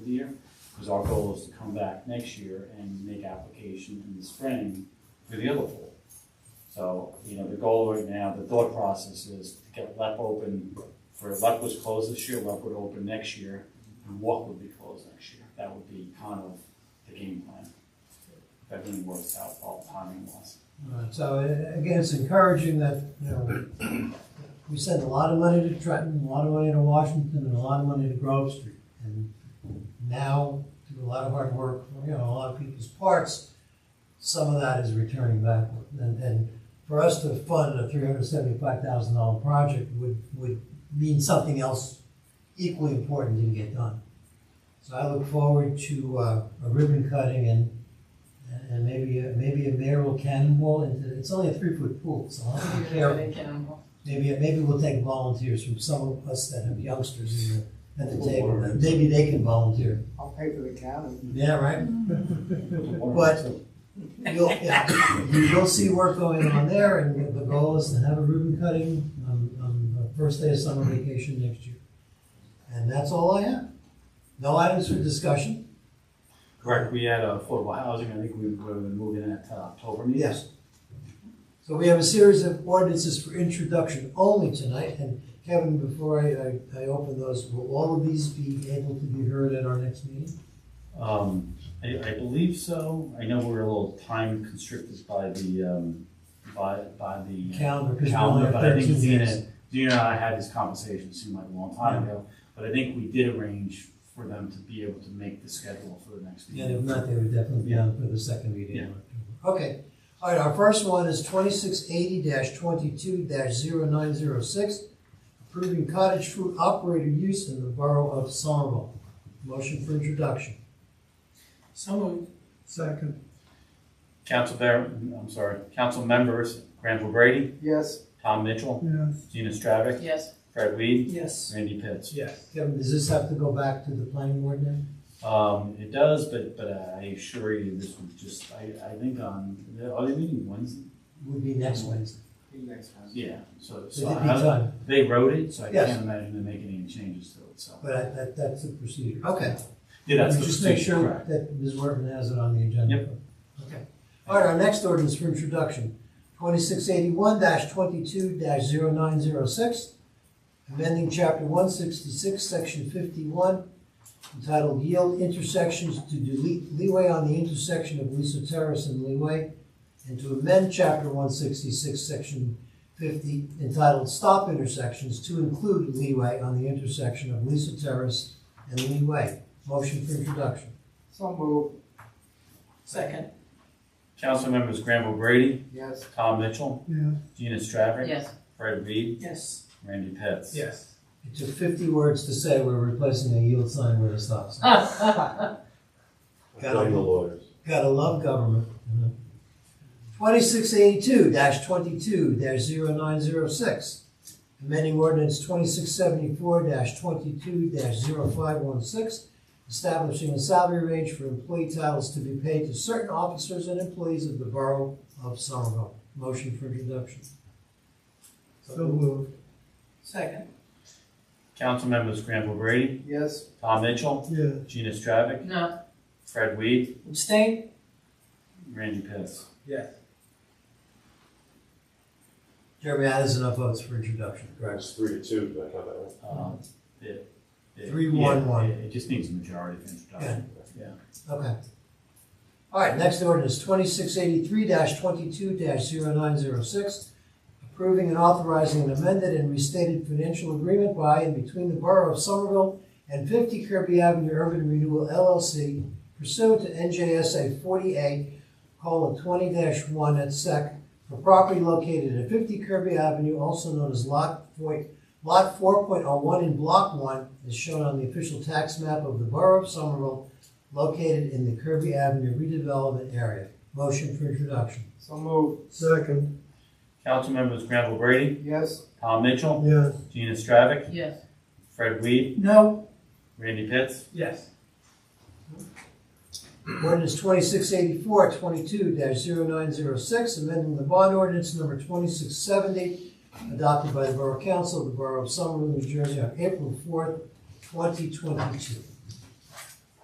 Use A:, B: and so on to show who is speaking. A: of the year, because our goal is to come back next year and make application in the spring for the other pool. So, you know, the goal right now, the thought process is to get LEP open, for LEP was closed this year, LEP would open next year, and WAC would be closed next year. That would be kind of the game plan. If everything works out, all timing wise.
B: Alright, So uh, again, it's encouraging that, you know, we send a lot of money to Trenton, a lot of money to Washington, and a lot of money to Grove Street. And now, through a lot of hard work, you know, a lot of people's parts, some of that is returning backward. And, and for us to fund a three hundred seventy-five thousand dollar project would, would mean something else equally important didn't get done. So I look forward to uh, a ribbon cutting and and maybe, a- maybe a mayoral cannonball into, it's only a three-foot pool, so I'll have to be careful. Maybe, maybe we'll take volunteers from some of us that have youngsters in the, at the table, and maybe they can volunteer.
C: I'll pay for the county.
B: Yeah, right?
A: But
B: But- You'll, yeah, you'll see work going on there, and the goal is to have a ribbon cutting on, on the first day of summer vacation next year. And that's all I have. No items for discussion?
A: Correct, we had affordable housing, I think we were moving that to October meeting.
B: Yes. So we have a series of ordinances for introduction only tonight, and Kevin, before I, I, I open those, will all of these be able to be heard at our next meeting?
A: Um, I, I believe so. I know we're a little time constricted by the, um, by, by the
B: Calendar, because we only
A: calendar,
B: have
A: but I think
B: thirteen
A: Zena,
B: minutes.
A: Zena and I had this conversation, it seemed like a long time ago, but I think we did arrange for them to be able to make the schedule for the next
B: And if
A: meeting.
B: not, they would definitely be on for the second meeting in
A: Yeah.
B: October. Okay, all right, our first one is twenty-six eighty twenty-two 906 approving cottage food operator use in the borough of Somerville. Motion for introduction.
D: So moved. Second.
A: Council Bear, I'm sorry, council members, Granville Brady,
C: Yes,
A: Tom Mitchell,
D: Yes.
A: Gina Stravic,
E: Yes,
A: Fred Weed,
D: Yes.
A: Randy Pitts.
D: Yes.
B: Kevin, does this have to go back to the planning board now?
A: Um, it does, but, but I assure you, this was just, I, I think on, are they meeting Wednesday?
B: Would be next Wednesday.
C: be next one.
A: Yeah, so,
B: So
A: so
B: it'd be
A: I,
B: done,
A: They wrote it, so I
B: Yes.
A: can't imagine them making any changes to it, so.
B: but I- that, that's the procedure. Okay.
A: Yeah, that's the
B: Just make
A: procedure,
B: sure
A: correct.
B: that Ms. Wortman has it on the agenda.
A: Yep.
B: Okay. All right, our next ordinance for introduction, twenty-six eighty-one twenty-two 906 amending chapter one sixty-six, section fifty-one, entitled Yield Intersections to delete leeway on the intersection of Lisa Terrace and Leeway, and to amend chapter one sixty-six, section fifty, entitled Stop Intersections to include leeway on the intersection of Lisa Terrace and Leeway. Motion for introduction.
C: So move,
D: Second.
A: Council members Granville Brady,
C: yes,
A: Tom Mitchell,
D: Yes.
A: Gina Stravic.
E: yes,
A: Fred Weed,
D: Yes.
A: Randy Pitts.
D: Yes.
B: It took fifty words to say we're replacing a yield sign with a stop sign.
F: Blame the lawyers.
B: Gotta love government. Twenty-six eighty-two twenty-two 906 amending ordinance twenty-six seventy-four twenty-two 516 establishing a salary range for employee titles to be paid to certain officers and employees of the Borough of Somerville. Motion for introduction.
D: So moved. Second.
A: Council members Granville Brady,
C: yes,
A: Tom Mitchell,
D: Yes.
A: Gina Stravic,
E: no,
A: Fred Weed,
D: Abstain?
A: Randy Pitts.
D: Yes.
B: Jeremy, that is enough votes for introduction. Correct.
F: It's three to two, did I have that right?
A: Um, it- it-
B: Three,
A: yeah,
B: one, one.
A: It it just needs a majority of introduction. Yeah.
B: Okay. All right, next ordinance, twenty-six eighty-three twenty-two 906 approving and authorizing an amended and restated financial agreement by and between the Borough of Somerville and fifty Kirby Avenue Urban Renewal LLC pursuant to NJSA forty-eight, colon, twenty one at sec, for property located at fifty Kirby Avenue, also known as Lot Four, Lot four point oh one in Block One, is shown on the official tax map of the Borough of Somerville located in the Kirby Avenue redevelopment area. Motion for introduction.
C: so move,
D: Second.
A: Council members Granville Brady,
C: yes,
A: Tom Mitchell,
D: Yes.
A: Gina Stravic,
E: yes,
A: Fred Weed,
D: No.
A: Randy Pitts.
D: Yes.
B: Ordinance 2684, 22-0906, amending the bond ordinance number twenty-six seventy, adopted by the Borough Council of the Borough of Somerville, New Jersey on April fourth, twenty twenty-two.